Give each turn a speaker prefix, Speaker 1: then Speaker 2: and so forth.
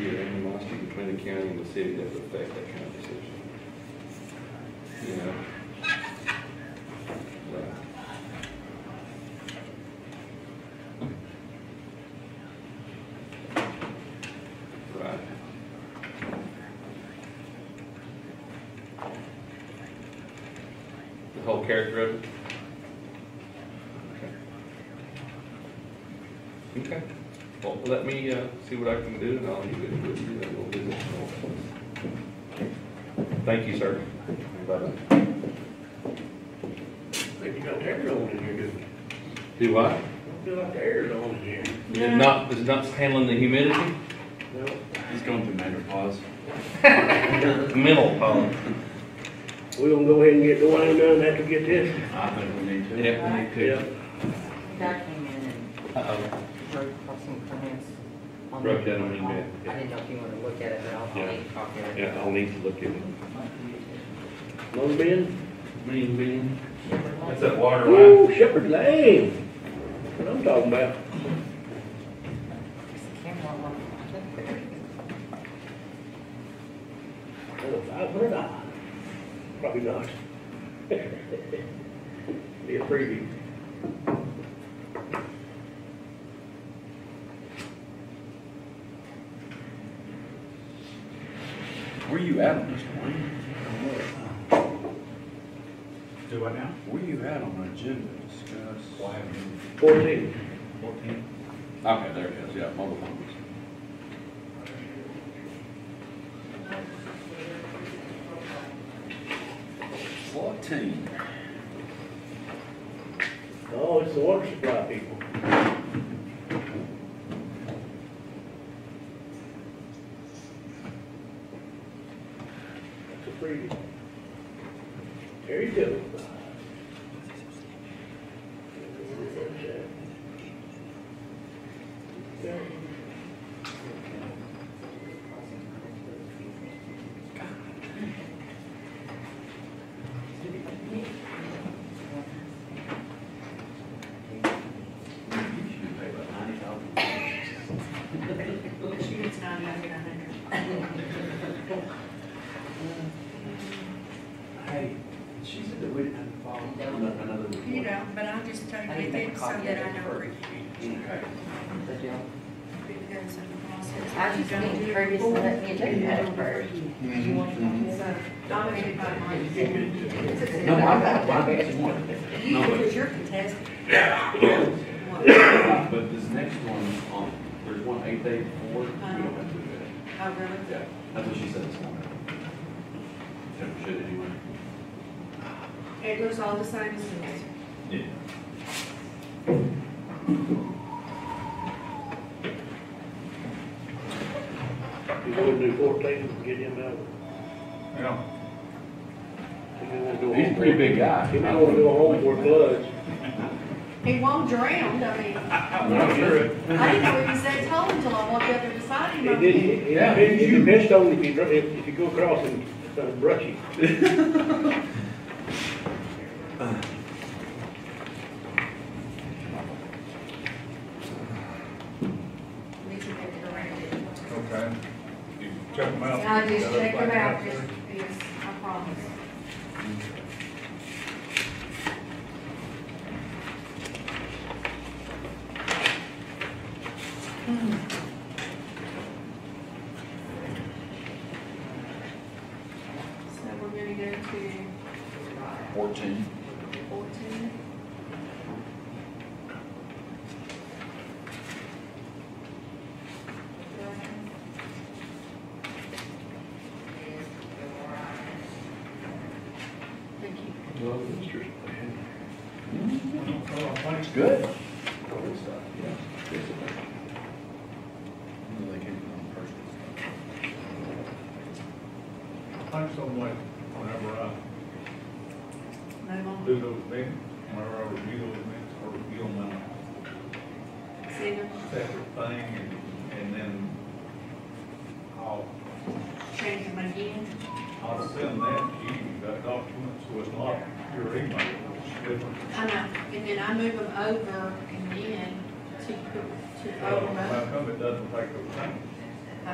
Speaker 1: between the county and the city that would affect that kind of decision. You know? Right. Right. The whole character of it? Okay. Okay, well, let me, uh, see what I can do, and I'll leave it with you, and we'll do this. Thank you, sir. Bye-bye.
Speaker 2: Think you got the air on in here, do you?
Speaker 1: Do what?
Speaker 2: Don't feel like the air's on in here.
Speaker 1: Is it not, is it not handling the humidity?
Speaker 2: No.
Speaker 3: He's going through menopause.
Speaker 1: Mental problem.
Speaker 2: We gonna go ahead and get the wine done after we get this?
Speaker 3: I think we need to.
Speaker 1: Yeah, we need to.
Speaker 4: That came in and
Speaker 1: Uh-oh.
Speaker 4: wrote some comments. on
Speaker 1: Wrote that
Speaker 4: the-
Speaker 1: on email, yeah.
Speaker 4: I didn't know if you wanted to look at it, but I'll, I'll
Speaker 1: Yeah.
Speaker 4: make a copy of it.
Speaker 1: Yeah, I'll need to look at it.
Speaker 2: Long Ben?
Speaker 1: Mean bean.
Speaker 3: That's that water line.
Speaker 2: Ooh, Shepherd Lane. What I'm talking about.
Speaker 4: Is the camera on?
Speaker 2: Five hundred dollars. Probably not. Be a preview.
Speaker 3: Where you at on this, Dwayne?
Speaker 5: Do what now?
Speaker 3: Where you at on the agenda to discuss? Why have you?
Speaker 2: Fourteen.
Speaker 5: Fourteen.
Speaker 3: Okay, there it is, yeah, mobile homes. Fourteen.
Speaker 2: Oh, it's the water supply people. That's a preview. There you go.
Speaker 3: You should pay about ninety thousand.
Speaker 6: She gets nine hundred, a hundred.
Speaker 3: Hey, she said that we didn't have to follow up another report.
Speaker 6: You know, but I'll just tell
Speaker 4: I
Speaker 6: you
Speaker 4: didn't make a
Speaker 6: it so
Speaker 4: copy
Speaker 6: that
Speaker 4: of
Speaker 6: I
Speaker 4: it
Speaker 6: know
Speaker 4: for-
Speaker 6: where you
Speaker 3: Okay.
Speaker 4: The deal.
Speaker 6: because of the process.
Speaker 4: I just need Curtis to let me do that first.
Speaker 6: So, dominated by
Speaker 2: Mm-hmm.
Speaker 6: mine.
Speaker 3: No, I, I, I just wanted that. No, but
Speaker 6: Because you're contested.
Speaker 3: But this next one, um, there's one eight day before, we don't have to do that.
Speaker 6: Oh, really?
Speaker 3: Yeah, that's what she said this morning. Never should anyway.
Speaker 6: It goes all the same as this.
Speaker 3: Yeah.
Speaker 2: You go and do fourteen, and get him out.
Speaker 5: Yeah.
Speaker 3: He's a pretty big guy.
Speaker 2: He might wanna do a home for floods.
Speaker 6: He won't drown, I mean,
Speaker 3: I'm sure.
Speaker 6: I didn't know he was that tall until I walked up and beside
Speaker 2: He
Speaker 6: him.
Speaker 2: did, he,
Speaker 3: Yeah,
Speaker 2: he,
Speaker 3: he's
Speaker 2: he
Speaker 3: huge.
Speaker 2: missed on if you, dr- if, if you go across and, it's kind of brushy.
Speaker 6: We should have it around it.
Speaker 5: Okay. You check them out.
Speaker 6: I'll just check them out, just, yes, I promise. So we're gonna go to
Speaker 3: Fourteen.
Speaker 6: fourteen. Thank you.
Speaker 3: It's good. Good stuff, yeah. Good stuff. No, they came from personal stuff.
Speaker 5: I'm so like, whenever I
Speaker 6: Move on.
Speaker 5: do those things, whenever I review those things, I review them on
Speaker 6: See them,
Speaker 5: a separate thing and, and then I'll,
Speaker 6: change them again.
Speaker 5: I'll send that to you, that document, so it's not your email, it's different.
Speaker 6: I know, and then I move them over and then to, to
Speaker 5: How
Speaker 6: overrun.
Speaker 5: come it doesn't take those things?